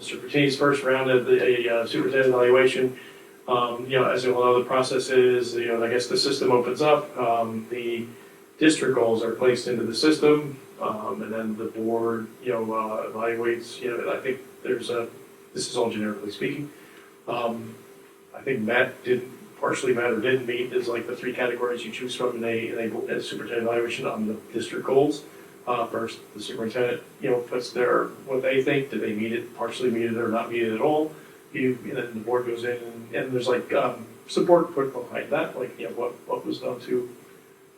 Mr. Pertini's first round of the uh, superintendent evaluation. Um, You know, as you all know, the process is, you know, I guess the system opens up, um, the district goals are placed into the system, um, and then the board, you know, uh, evaluates, you know, I think there's a, this is all generically speaking. Um, I think Matt did, partially Matt or didn't meet, is like the three categories you choose from in a, in a superintendent evaluation on the district goals uh, first, the superintendent, you know, puts their, what they think, do they meet it, partially meet it or not meet it at all? You, and then the board goes in and, and there's like, um, support put behind that, like, you know, what, what was done to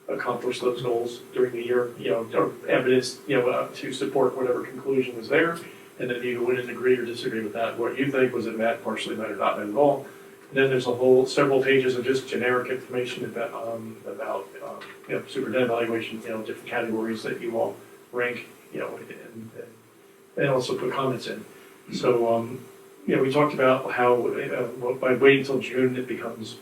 accomplish those goals during the year, you know, or evidence, you know, uh, to support whatever conclusion was there. And then you wouldn't agree or disagree with that, what you think was it met, partially met or not met at all. And then there's a whole, several pages of just generic information about, um, about, um, you know, superintendent evaluation, you know, different categories that you all rank, you know, and, and also put comments in. So, um, you know, we talked about how, uh, well, by waiting until June, it becomes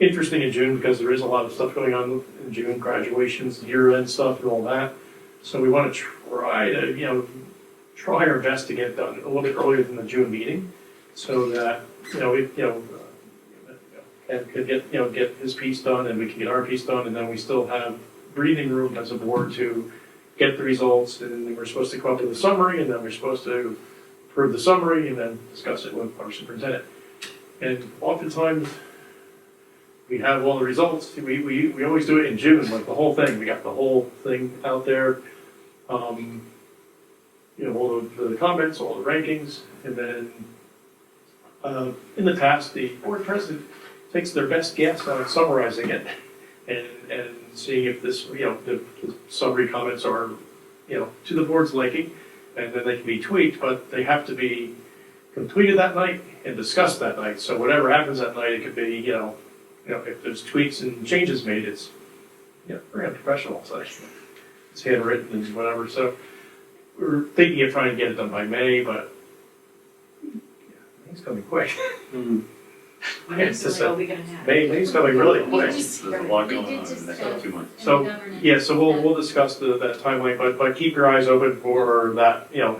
interesting in June because there is a lot of stuff going on in June, graduations, year-end stuff and all that. So we want to try to, you know, try our best to get it done a little bit earlier than the June meeting so that, you know, we, you know, uh, and could get, you know, get his piece done and we can get our piece done and then we still have breathing room as a board to get the results, and then we're supposed to come up with a summary, and then we're supposed to approve the summary, and then discuss it with our superintendent. And oftentimes, we have all the results, we, we, we always do it in June, like the whole thing, we got the whole thing out there. Um, you know, all the, the comments, all the rankings, and then, uh, in the past, the board president takes their best guess on summarizing it and, and seeing if this, you know, the the summary comments are, you know, to the board's liking, and then they can be tweaked, but they have to be completed that night and discussed that night, so whatever happens that night, it could be, you know, you know, if there's tweaks and changes made, it's, you know, very unprofessional, so it's handwritten and whatever, so we're thinking of trying to get it done by May, but yeah, it's coming quick. It's just Like, a- are we gonna have? May, May's coming really Well, quick. it's just- There's a lot going on in the next two months. So, Yeah, so we'll, we'll discuss the, that timeline, but, but keep your eyes open for that, you know,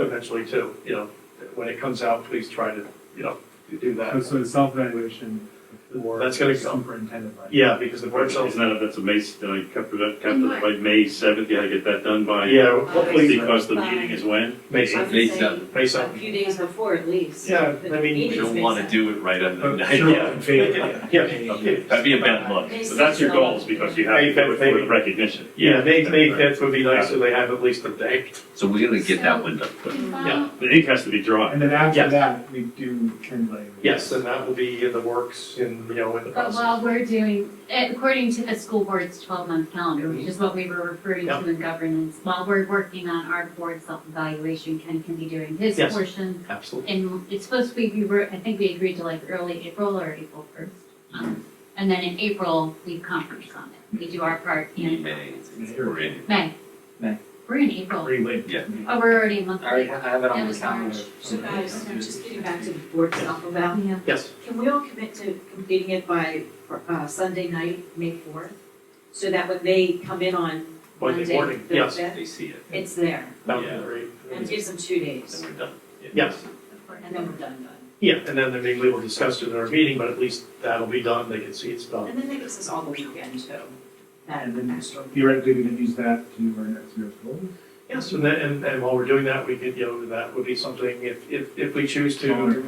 eventually too, you know, when it comes out, please try to, you know, do So, that. so the self-evaluation for. That's gonna come. Superintendent, right? Yeah, because the board sells, Isn't that, that's a May, I kept it, kept it by May seventh, you gotta get that done by. yeah, uh, hopefully, Because the meeting is when? May I would seventh, May say seventh. May A seventh. few days before at least. uh, Yeah, The I mean- meeting We is don't May want to 7th. do it right under But the night. sure, in favor. Uh, Yeah. Okay, That'd be a bad look. So that's your goals, because you have to do it for the recognition. Yeah, May, May fifth would be nice, so they have at least a day. So we're gonna get that one done. quick. Yeah. The ink has to be dry. And then after Yes. that, we do turn lane. Yes, and that will be in the works in, you know, in the But process. while we're doing, eh, according to the school board's twelve-month calendar, which is what we were referring Yep. to in governance, while we're working on our board self-evaluation, Ken can be doing his Yes. portion. Absolutely. And it's supposed to be, we were, I think we agreed to like early April or April first. And then in April, we conference on it. We do our part in May, we're in. May. May. We're in April. Greenlee. Oh, we're already a month I already late. have it That on the was calendar. March. So guys, I'm just getting back to the board stuff about, Yeah. Yes, can we all commit to completing it by, uh, Sunday night, May fourth? So that when they come in on Monday Monday, morning, the yes. fifth, They see it, it's there. Mountain Green. And it gives them two days, then we're done. Yes. and then we're done, done. Yeah, and then they maybe we'll discuss it in our meeting, but at least that'll be done, they can see it's done. And then that gives us all the weekend too, that And then extra. theoretically, we can use that to do our next year's goals. Yes, and then, and, and while we're doing that, we could, you know, that would be something, if, if, if we choose to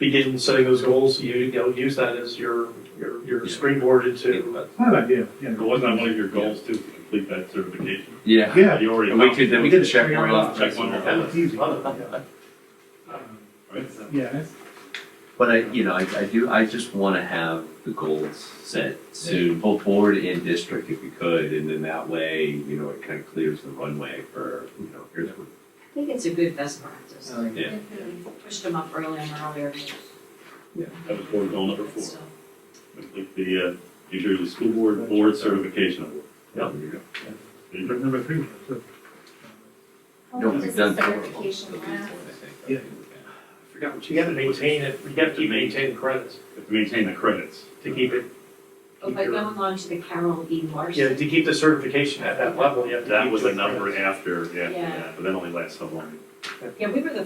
begin setting those goals, you, you know, use that as your, your, your springboard into. It's not an idea, yeah. But Wasn't that one of your goals too, to complete that certification? Yeah. Yeah. You already. And we could, then we could check Yeah. one off. Check one off. It's easy. Yeah. Right? Yeah, it's- But I, you know, I, I do, I just wanna have the goals set soon, both board and district if we could. And then that way, you know, it kind of clears the runway for, you know, here's what. I think it's a good best practice, Uh, Yeah. pushed them up early and earlier. That was board goal number four. So- Complete the, uh, New Jersey School Board, Board Certification Award. Yeah. Yeah. number three. so- No, we've done. certification last? Yeah. I forgot what you. gotta maintain it, you gotta keep maintaining credits To maintain the credits. to keep it, Oh, by going on to the Carol E. yeah, Larson. to keep the certification at that level, you have to. That keep was the the number credits. after, yeah, Yeah. yeah, but that only lasts so long. Yeah, we were the